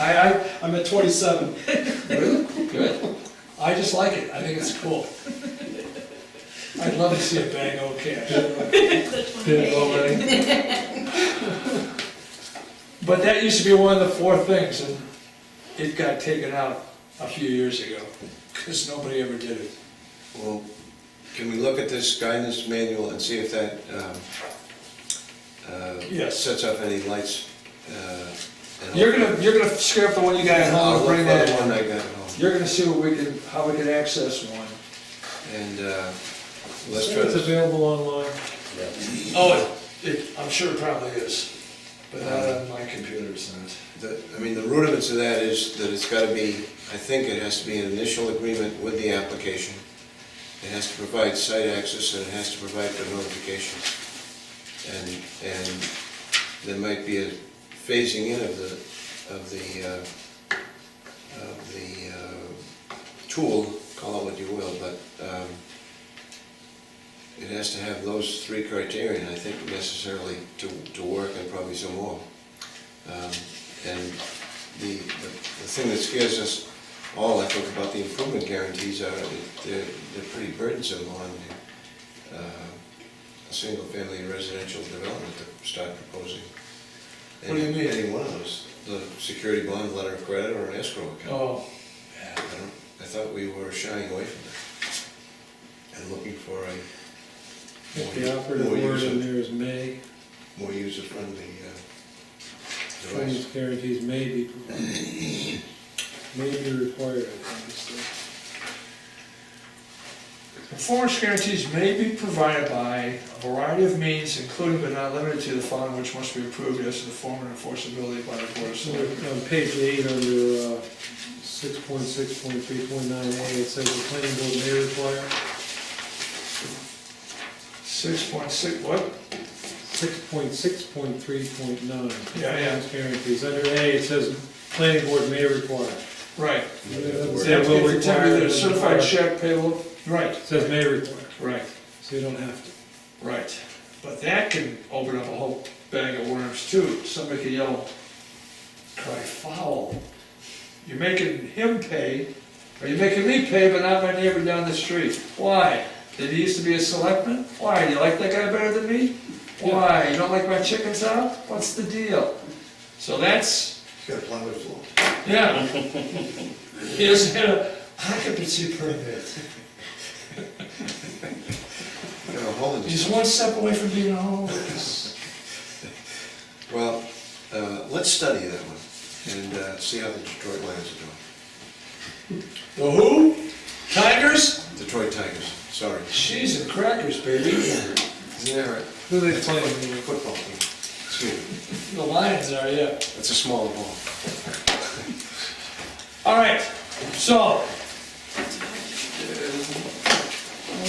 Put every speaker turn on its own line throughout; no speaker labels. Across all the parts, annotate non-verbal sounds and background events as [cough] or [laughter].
I, I, I'm at twenty-seven.
Really? Good.
I just like it, I think it's cool. I'd love to see a bang O cash. But that used to be one of the four things, and it got taken out a few years ago, because nobody ever did it.
Well, can we look at this guidance manual and see if that, um, uh,
Yes.
sets up any lights? uh, and-
You're gonna, you're gonna scrap the one you got at home
I'll
and
look
bring
for
that
the one
in.
I got at home.
You're gonna see what we can, how we can access one.
And, uh, let's try
It's
to,
available online.
Oh, it, it- I'm sure it probably is, but not on my computer, it's not.
the- I mean, the rudiments of that is that it's gotta be, I think it has to be an initial agreement with the application. It has to provide site access and it has to provide for notification. And, and there might be a phasing in of the, of the, uh, of the uh, tool, call it what you will, but um, it has to have those three criteria, and I think necessarily to, to work and probably some more. Um, And the, the the thing that scares us all, I think, about the improvement guarantees are that they're, they're pretty burdensome on the, uh, a single-family residential development to start proposing.
What do you mean?
Any one of those, the security bond, letter of credit, or an escrow account.
Oh,
I don't, I thought we were shying away from that and looking for a
If the operative
More
word
user-
in there is may,
more user-friendly uh,
claims
device.
guarantees may be provided. May be required, I think, is the-
Performance guarantees may be provided by a variety of means, including but not limited to the following, which must be approved as to the form and enforceability by the Board of
So
Selectmen.
On page eight, under uh, six point six point three point nine A, it says the planning board may require,
Six point six, what?
six point six point three point nine.
Yeah, yeah.
Guarantees, under A, it says planning board may require.
Right.
Yeah,
That
well,
will require
required
a
and
certified
required.
check payable. Right,
It says may require,
right,
so you don't have to.
right. But that can open up a whole bag of worms too. Somebody could yell, cry foul. You're making him pay, or you're making me pay, but not my neighbor down the street. Why? Did he used to be a selectman? Why? Do you like that guy better than me? Why? You don't like my chickens out? What's the deal? So that's,
Got a plywood floor.
yeah. He doesn't have an occupancy permit.
Got a hole in
He's
it.
one step away from being a homeless.
Well, uh, let's study that one and uh, see how the Detroit Lions are doing.
The who? Tigers?
Detroit Tigers, sorry.
Cheese and crackers, baby.
Isn't that right?
Who they playing?
Football team. Excuse me,
The Lions are, yeah.
that's a smaller ball.
All right, so. uh,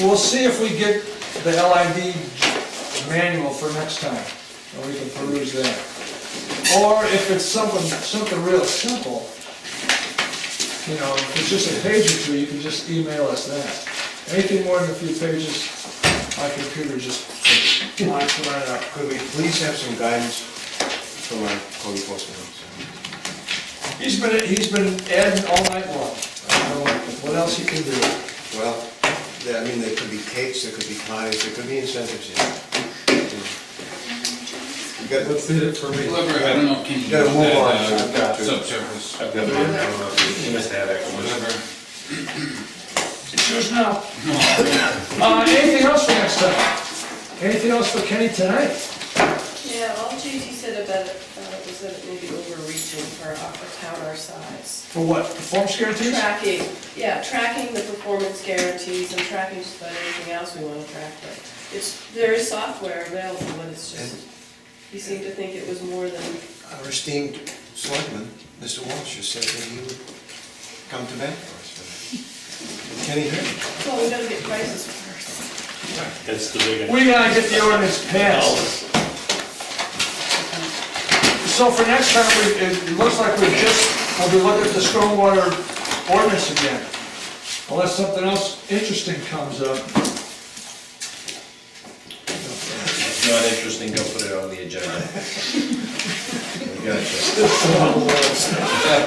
We'll see if we get the LID manual for next time, and we can peruse that. Or if it's something, something real simple, you know, if it's just a page or two, you can just email us that. Anything more than a few pages, my computer just [laughs] locks right up.
Could we please have some guidance from our code enforcement officer?
He's been, he's been adding all night long. I don't know What else he can do?
Well, there- I mean, there could be cakes, there could be pies, there could be incentives here. You got-
Let's hit it for me.
Whoever, I don't know, can you?
Gotta move
that,
on.
uh,
I've got to.
Subsurface,
I've got mine, I don't know if you missed that actually.
whatever.
Choose now. Uh, anything else for next time? Anything else for Kenny tonight?
Yeah, all JD said about it uh, was that it may be overreaching for account our size.
For what, performance guarantees?
Tracking, yeah, tracking the performance guarantees and tracking just about anything else we wanna track, but it's, there is software available, but it's just, he seemed to think it was more than,
Our esteemed selectman, Mr. Walsh, has said that he would come to bat for us. for that. Kenny Herron.
well, we gotta get prices first.
That's the big one.
We gotta get the ordinance passed. So for next time, we, it looks like we just, we'll be looking at the stormwater ordinance again. Unless something else interesting comes up.
It's not interesting, don't put it on the agenda.
Gotcha.